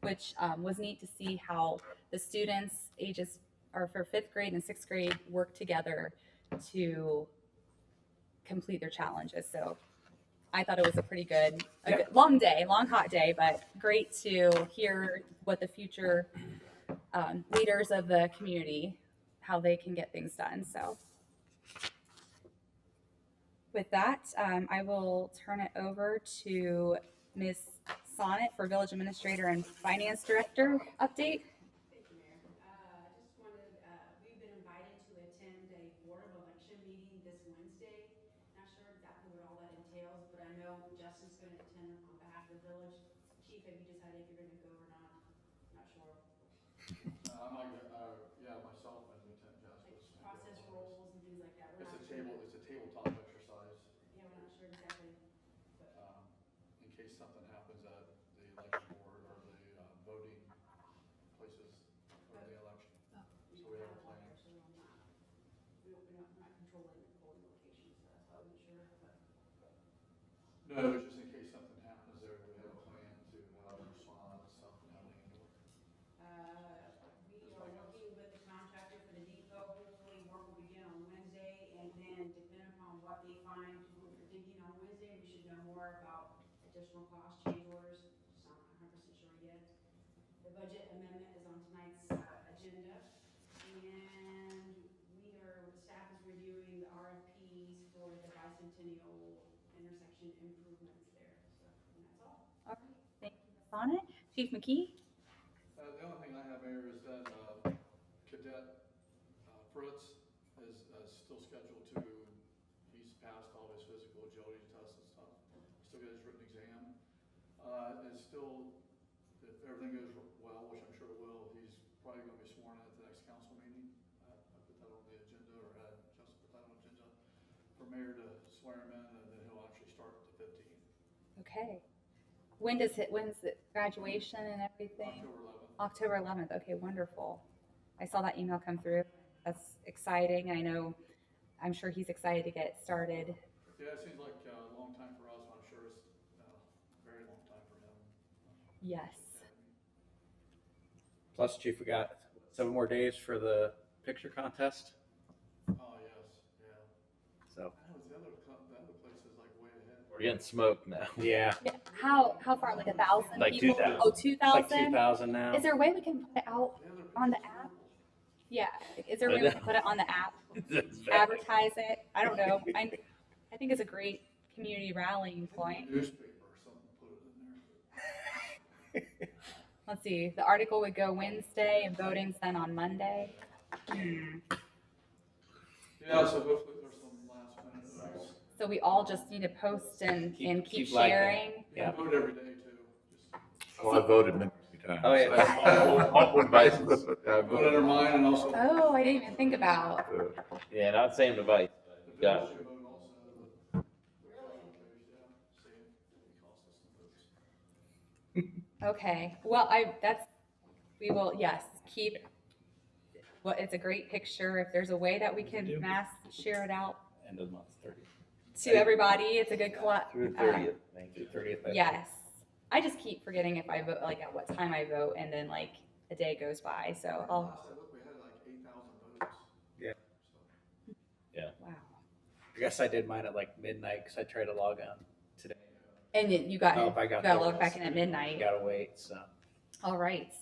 which um, was neat to see how the students ages are for fifth grade and sixth grade work together to complete their challenges. So I thought it was a pretty good, a good long day, long hot day, but great to hear what the future um, leaders of the community how they can get things done. So with that, um, I will turn it over to Ms. Sonnet for Village Administrator and Finance Director update. Thank you, Mayor. Uh, I just wanted, uh, we've been invited to attend a Board of Election meeting this Wednesday. Not sure exactly what all that entails, but I know Justin's gonna attend on behalf of the village. Chief, have you decided if you're gonna go or not? Not sure. Uh, my, uh, yeah, myself and Lieutenant Jasper. Like process roles and things like that. We're It's a not sure. table, it's a tabletop exercise, Yeah, we're not sure exactly. um, in case something happens at the election board or the, uh, voting places or the election. We So don't we have a have a lot plan. of actually on that. We don't, we're not, not controlling the polling locations, so that's why I wasn't sure, but. No, it was just in case something happens there, we have a plan to, uh, respond to something happening. Uh, We are working with the contractor for the depot, hopefully work will begin on Wednesday, and then depending upon what they find, what they're digging on Wednesday, we should know more about additional cost change orders, just not hundred percent sure yet. The budget amendment is on tonight's uh, agenda, and we are, staff is reviewing the RFPs for the bicentennial intersection improvements there, so, and that's all. All right, thank you, Ms. Sonnet. Chief McKee? Uh, the only thing I have, Mayor, is that, uh, Cadet uh, Fritz is, uh, still scheduled to, he's passed all his physical agility tests and stuff. Still got his written exam. Uh, and still, if everything goes well, which I'm sure it will, he's probably gonna be sworn in at the next council meeting. Uh, I put that on the agenda, or had Justin put that on the agenda, for Mayor to swear him in, and then he'll actually start the fifteenth, Okay. When does it, when's the graduation and everything? October October eleventh, eleventh. okay, wonderful. I saw that email come through. That's exciting. I know, I'm sure he's excited to get started. Yeah, it seems like uh, a long time for us, I'm sure it's uh, a very long time for him. Yes. Plus, Chief, we got seven more days for the picture contest. Oh, yes, yeah. So I know, the other, co- the other place is like way ahead. We're getting smoked now. yeah, Yeah, How, how far, like a thousand Like people? 2,000. Oh, two it's like two thousand? thousand now. Is there a way we can put it out? The other On the place is app? horrible. Yeah, like, is there a way we can put it on the app? That's bad. advertise it. I don't know. I, I think it's a great community rallying point. Newspaper or something, put it in there. Let's see, the article would go Wednesday and voting's then on Monday. Hmm. Yeah, so hopefully there's some last minute. votes. So we all just need to post and, Keep- and keep keep liking it. sharing. You can vote every day too. Just Well, Oh, I voted many times. Oh, yeah. On one basis. I Vote voted. under mine and also. Oh, I didn't even think about. Uh, Yeah, not same device. The Yeah. village should vote also, but- Yeah, see, it costs us some votes. Okay, well, I, that's, we will, yes, keep, well, it's a great picture. If there's a way that we can mass share it out End of the month, thirty. to everybody, it's a good collab. Through uh, thirtieth, thank you, thirtieth. Yes. I just keep forgetting if I vote, like at what time I vote, and then like a day goes by. So I'll, Last I looked, we had like eight thousand votes. Yeah. So, wow. I guess I did mine at like midnight because I tried to log on today. And then you got, Oh, if I got gotta there, log back in at midnight. Gotta wait, so. All right.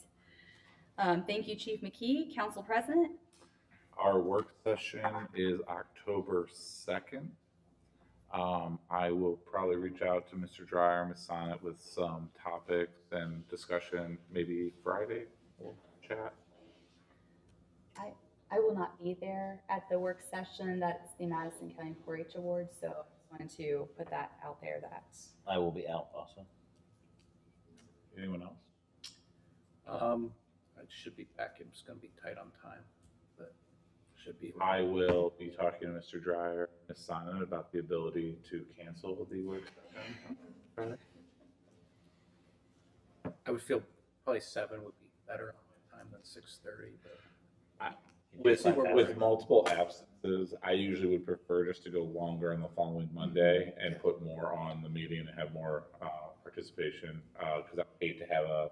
Um, thank you, Chief McKee, Council President. Our work session is October second. Um, I will probably reach out to Mr. Dryer, Ms. Sonnet with some topics and discussion, maybe Friday we'll chat. I will not be there at the work session. That's the Madison County 4-H Awards, so I just wanted to put that out there that I will be out also. Anyone else? Um, I should be back. I'm just gonna be tight on time, but should be. I will be talking to Mr. Dryer, Ms. Sonnet about the ability to cancel the work session. I would feel probably seven would be better on my time than six thirty, but. With, with multiple absences, I usually would prefer just to go longer on the following Monday and put more on the meeting and have more, uh, participation. Uh, cause I hate to have a